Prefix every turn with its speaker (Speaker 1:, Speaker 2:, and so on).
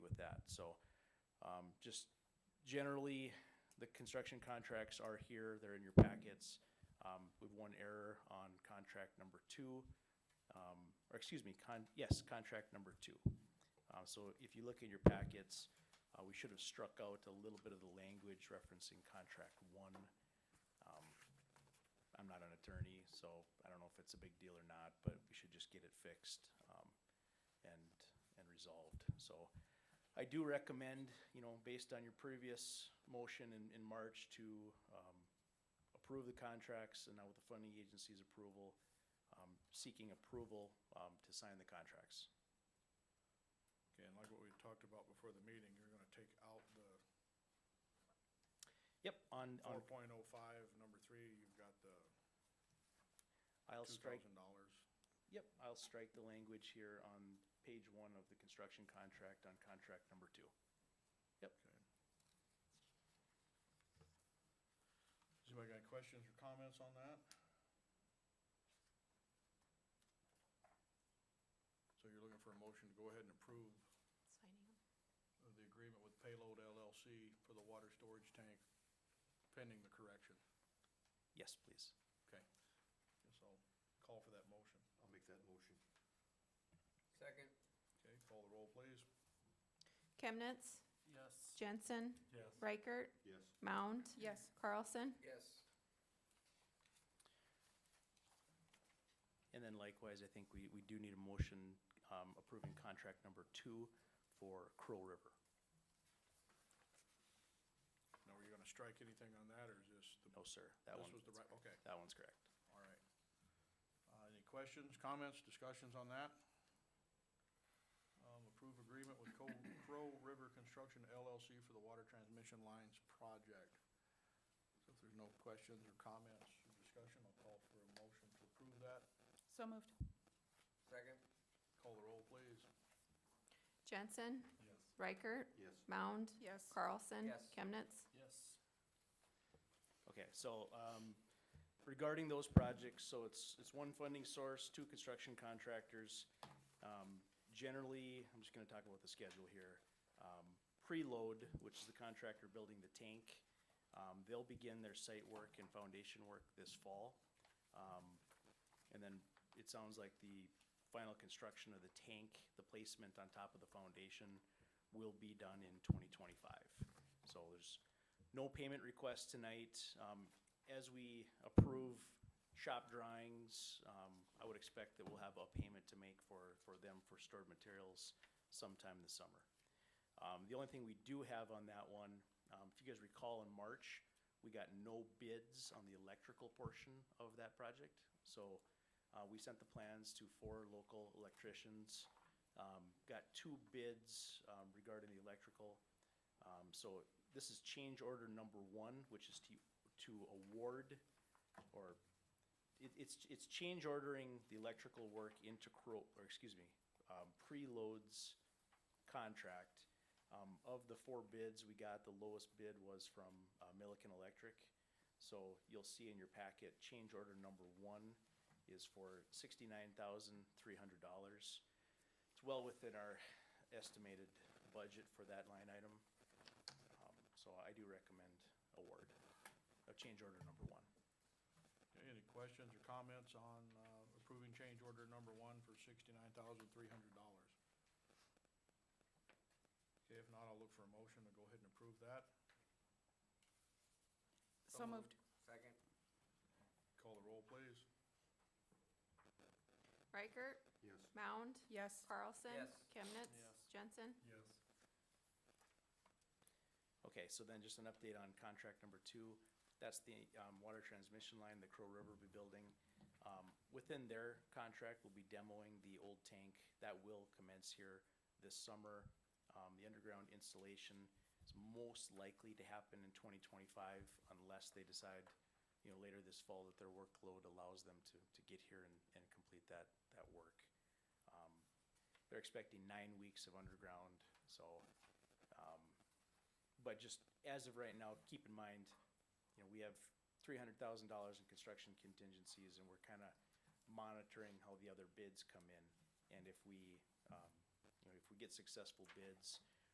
Speaker 1: So, um, just generally, the construction contracts are here, they're in your packets. Um, we've one error on contract number two, um, or excuse me, con, yes, contract number two. Uh, so if you look in your packets, uh, we should have struck out a little bit of the language referencing contract one. Um, I'm not an attorney, so I don't know if it's a big deal or not, but we should just get it fixed, um, and, and resolved. So I do recommend, you know, based on your previous motion in, in March to, um, approve the contracts and now with the funding agency's approval, um, seeking approval, um, to sign the contracts.
Speaker 2: Okay, and like what we talked about before the meeting, you're gonna take out the
Speaker 1: Yep, on,
Speaker 2: four
Speaker 1: on,
Speaker 2: point oh five, number three, you've got the
Speaker 1: I'll
Speaker 2: two
Speaker 1: strike,
Speaker 2: thousand dollars.
Speaker 1: yep, I'll strike the language here on page one of the construction contract on contract number two.
Speaker 2: Okay. Does anybody got any questions or comments on that? So you're looking for a motion to go ahead and approve
Speaker 3: Signing them.
Speaker 2: of the agreement with Payload LLC for the water storage tank pending the correction.
Speaker 1: Yes, please.
Speaker 2: Okay. Guess I'll call for that motion.
Speaker 4: I'll make that motion.
Speaker 5: Second.
Speaker 2: Okay, call the roll, please.
Speaker 3: Chemnitz,
Speaker 5: Yes.
Speaker 3: Jensen,
Speaker 5: Yes.
Speaker 3: Reichert,
Speaker 4: Yes.
Speaker 3: Mound. Yes. Carlson.
Speaker 5: Yes.
Speaker 1: And then likewise, I think we, we do need a motion, um, approving contract number two for Crow River.
Speaker 2: Now, were you gonna strike anything on that, or is this the?
Speaker 1: No, sir, that
Speaker 2: This
Speaker 1: one.
Speaker 2: was the right, okay,
Speaker 1: That one's correct.
Speaker 2: all right. Uh, any questions, comments, discussions on that? Um, approve agreement with Co- Crow River Construction LLC for the water transmission lines project. So if there's no questions or comments or discussion, I'll call for a motion to approve that.
Speaker 3: So moved.
Speaker 5: Second.
Speaker 2: Call the roll, please.
Speaker 3: Jensen,
Speaker 5: Yes.
Speaker 3: Reichert,
Speaker 4: Yes.
Speaker 3: Mound. Yes. Carlson.
Speaker 5: Yes.
Speaker 3: Chemnitz.
Speaker 5: Yes.
Speaker 1: Okay, so um, regarding those projects, so it's, it's one funding source, two construction contractors. Um, Generally, I'm just gonna talk about the schedule here. Um, Preload, which is the contractor building the tank, um, they'll begin their site work and foundation work this fall. Um, And then it sounds like the final construction of the tank, the placement on top of the foundation will be done in twenty twenty-five. So there's no payment request tonight. Um, as we approve shop drawings, um, I would expect that we'll have a payment to make for, for them for stored materials sometime this summer. Um, the only thing we do have on that one, um, if you guys recall in March, we got no bids on the electrical portion of that project. So, uh, we sent the plans to four local electricians. Um, got two bids, um, regarding the electrical. Um, so this is change order number one, which is to, to award or it, it's, it's change ordering the electrical work into Crow, or excuse me, um, preloads contract. Um, of the four bids we got, the lowest bid was from, uh, Milliken Electric. So you'll see in your packet, change order number one is for sixty-nine thousand, three hundred dollars. It's well within our estimated budget for that line item. Um, So I do recommend award of change order number one.
Speaker 2: Okay, any questions or comments on, uh, approving change order number one for sixty-nine thousand three hundred dollars? Okay, if not, I'll look for a motion to go ahead and approve that.
Speaker 5: So moved. Second.
Speaker 2: Call the roll, please.
Speaker 3: Reichert,
Speaker 4: Yes.
Speaker 3: Mound. Yes. Carlson.
Speaker 5: Yes.
Speaker 3: Chemnitz.
Speaker 5: Yes.
Speaker 3: Jensen.
Speaker 2: Yes.
Speaker 1: Okay, so then just an update on contract number two. That's the um, water transmission line the Crow River will be building. Um, Within their contract, we'll be demoing the old tank. That will commence here this summer. Um, The underground installation is most likely to happen in 2025 unless they decide, you know, later this fall that their workload allows them to, to get here and, and complete that, that work. Um, They're expecting nine weeks of underground, so um, but just as of right now, keep in mind, you know, we have three hundred thousand dollars in construction contingencies and we're kinda monitoring how the other bids come in. And if we, um, you know, if we get successful bids,